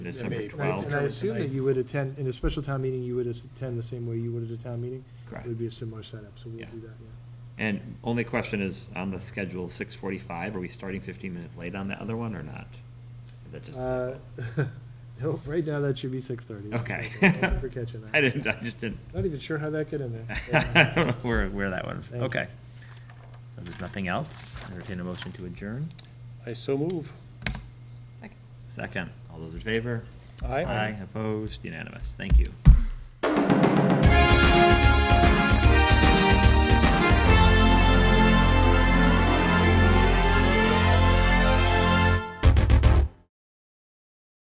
December Right, And I 12th. assume that you would attend, in a special town meeting, you would attend the same way you would at a town meeting? Correct. It would be a similar setup, so we'll Yeah. do that, yeah. And only question is, on the schedule, 6:45, are we starting 15 minutes late on the other one or not? That's just. Uh, Nope, right now that should be six thirty. Okay. Thank you for catching that. I didn't, I just didn't, Not even sure how that got in there. I don't know where, where that one, Thank you. okay. So there's nothing else, entertain a motion to adjourn. I so move. Second. Second, all those in favor? Aye. Aye, opposed, unanimous, thank you.